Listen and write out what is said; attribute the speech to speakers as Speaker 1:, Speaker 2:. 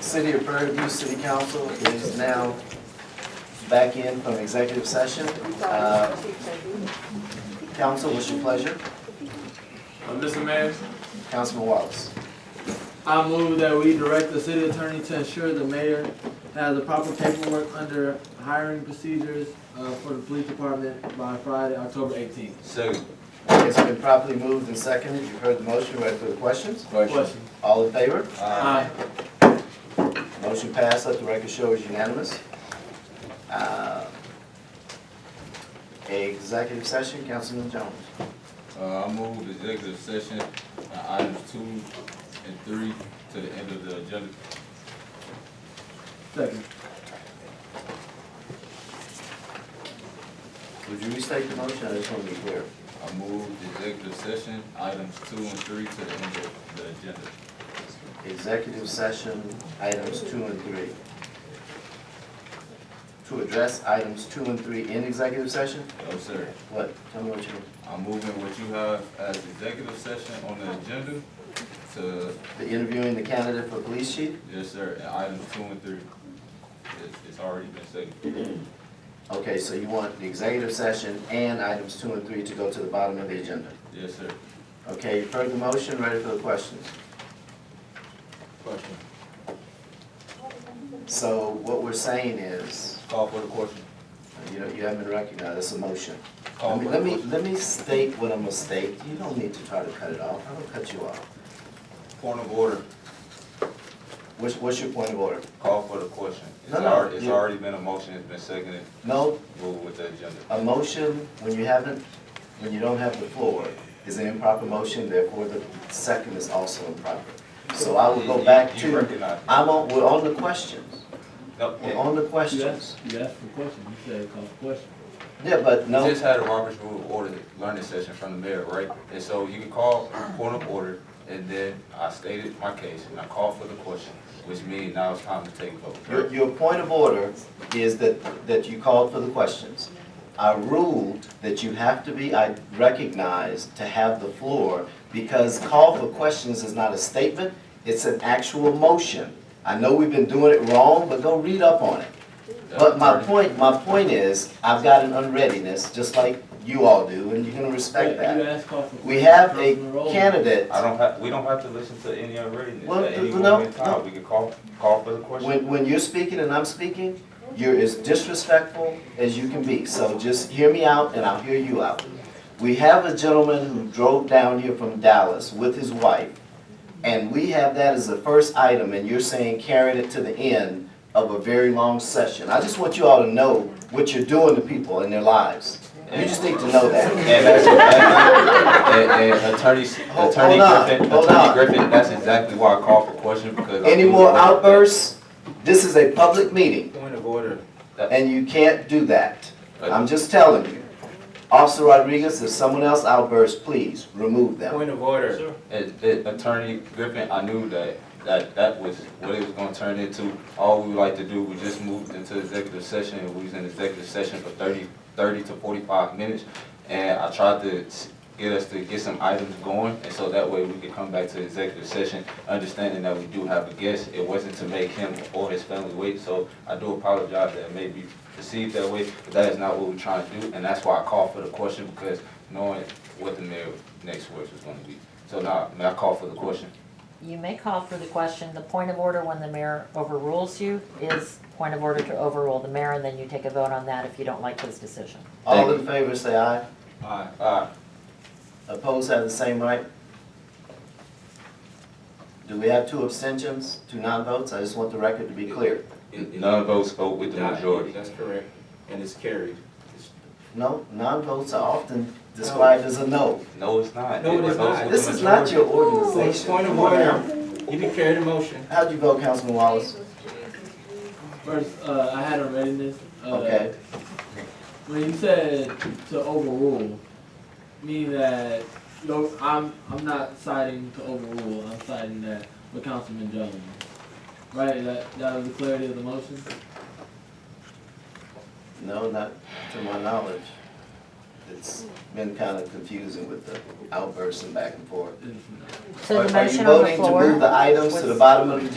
Speaker 1: City of Prairie View City Council is now back in from executive session. Uh, Council, what's your pleasure?
Speaker 2: Uh, Mr. Mayor,
Speaker 1: Councilman Wallace.
Speaker 2: I move that we direct the city attorney to ensure the mayor has the proper paperwork under hiring procedures uh, for the police department by Friday, October eighteenth.
Speaker 3: Second.
Speaker 1: It's been properly moved and seconded. You've heard the motion. Ready for the questions?
Speaker 2: Question.
Speaker 1: All in favor?
Speaker 3: Uh,
Speaker 2: Aye.
Speaker 1: Motion passed, let the record show is unanimous. Uh, Executive session, Councilman Jones.
Speaker 3: Uh, I move executive session, uh, items two and three to the end of the agenda.
Speaker 2: Second.
Speaker 1: Would you restate the motion? I just want to be clear.
Speaker 3: I move executive session, items two and three to the end of the agenda.
Speaker 1: Executive session, items two and three. To address items two and three in executive session?
Speaker 3: No, sir.
Speaker 1: What? Tell me what you,
Speaker 3: I'm moving what you have as executive session on the agenda to,
Speaker 1: the interviewing the candidate for police chief?
Speaker 3: yes, sir, and items two and three. It's, it's already been seconded.
Speaker 1: Okay, so you want the executive session and items two and three to go to the bottom of the agenda?
Speaker 3: Yes, sir.
Speaker 1: Okay, you've heard the motion, ready for the questions?
Speaker 3: Question.
Speaker 1: So what we're saying is,
Speaker 3: Call for the question.
Speaker 1: you know, you haven't been recognized, it's a motion.
Speaker 3: Call
Speaker 1: Let
Speaker 3: for
Speaker 1: me,
Speaker 3: the
Speaker 1: let me,
Speaker 3: question.
Speaker 1: let me state what I'm gonna state, you don't need to try to cut it off, I don't cut you off.
Speaker 3: Point of order,
Speaker 1: What's, what's your point of order?
Speaker 3: call for the question. It's
Speaker 1: No, no,
Speaker 3: already, it's
Speaker 1: you-
Speaker 3: already been a motion, it's been seconded,
Speaker 1: No,
Speaker 3: move with the agenda.
Speaker 1: a motion, when you haven't, when you don't have the floor, is an improper motion, therefore the second is also improper. So I will
Speaker 3: You-
Speaker 1: go
Speaker 3: you-
Speaker 1: back
Speaker 3: You
Speaker 1: to,
Speaker 3: recognize.
Speaker 1: I'm on, we're on the questions,
Speaker 3: No,
Speaker 1: we're on the
Speaker 2: You
Speaker 1: questions.
Speaker 2: asked, you asked for question, you said call for question.
Speaker 1: Yeah, but
Speaker 3: You
Speaker 1: no,
Speaker 3: just had a Robert's rule of order learning session from the mayor, right? And so you can call point of order, and then I stated my case, and I called for the question, which means now it's time to take a vote.
Speaker 1: Your, your point of order is that, that you called for the questions. I ruled that you have to be I- recognized to have the floor because call for questions is not a statement, it's an actual motion. I know we've been doing it wrong, but go read up on it. But my point, my point is, I've got an unreadiness, just like you all do, and you're gonna respect
Speaker 2: You
Speaker 1: that.
Speaker 2: asked call for.
Speaker 1: We
Speaker 2: question,
Speaker 1: have a
Speaker 2: Councilman Rowland.
Speaker 1: candidate.
Speaker 3: I don't have, we don't have to listen to any unreadiness
Speaker 1: Well,
Speaker 3: at any
Speaker 1: no,
Speaker 3: moment
Speaker 1: no.
Speaker 3: in time. We can call, call for the question.
Speaker 1: When, when you're speaking and I'm speaking, you're as disrespectful as you can be, so just hear me out and I'll hear you out. We have a gentleman who drove down here from Dallas with his wife, and we have that as the first item, and you're saying carrying it to the end of a very long session. I just want you all to know what you're doing to people in their lives. You just need to know that.
Speaker 3: And that's, and, and attorney,
Speaker 1: Hold-
Speaker 3: attorney
Speaker 1: hold on,
Speaker 3: Griffin,
Speaker 1: hold
Speaker 3: attorney
Speaker 1: on.
Speaker 3: Griffin, that's exactly why I called for question, because. I
Speaker 1: Any
Speaker 3: feel
Speaker 1: more
Speaker 3: like-
Speaker 1: outbursts? This is a public meeting.
Speaker 3: Point of order.
Speaker 1: And you can't do that. I'm just telling you. Officer Rodriguez, if someone else outbursts, please remove them.
Speaker 3: of order. Uh, Attorney Griffin, I knew that, that, that was what it was gonna turn into. All we would like to do, we just moved into executive session, and we was in executive session for 30 30 to forty-five minutes. And I tried to s- get us to get some items going, and so that way we could come back to executive session, understanding that we do have a guest. It wasn't to make him or his family wait, so I do apologize that it may be perceived that way, but that is not what we're trying to do, and that's why I called for the question, because knowing what the mayor's next words was gonna be. So now, may I call for the question?
Speaker 4: You may call for the question. The point of order when the mayor overrules you is point of order to overrule the mayor, and then you take a vote on that if you don't like his decision.
Speaker 1: All in favor, say aye.
Speaker 5: Uh,
Speaker 3: Aye. Aye.
Speaker 1: Opposed have the same right. Do we have two abstentions, two non-votes? I just want the record to be clear.
Speaker 3: None votes vote with the majority.
Speaker 5: That's correct, and it's carried. It's-
Speaker 1: No, non-votes are often described as a no.
Speaker 3: No, it's not.
Speaker 5: No, it is
Speaker 3: votes
Speaker 5: not.
Speaker 3: with the
Speaker 1: This is not your organization.
Speaker 5: Point of
Speaker 1: Come on now.
Speaker 5: order, you didn't carry the motion.
Speaker 1: How'd you vote, Councilman Wallace?
Speaker 2: First, uh, I had a readiness. uh,
Speaker 1: Okay,
Speaker 2: When you said to overrule, meaning that you know, I'm I'm not citing to overrule. I'm citing that with Councilman Jones, right? That that was the clarity of the motion.
Speaker 1: no, not to my knowledge. It's been kind of confusing with the outbursts and back and forth.
Speaker 2: It's not.
Speaker 4: So
Speaker 1: Are-
Speaker 4: the motion on
Speaker 1: Are
Speaker 4: the floor.
Speaker 1: you voting to move the items to the
Speaker 4: was-
Speaker 1: bottom of the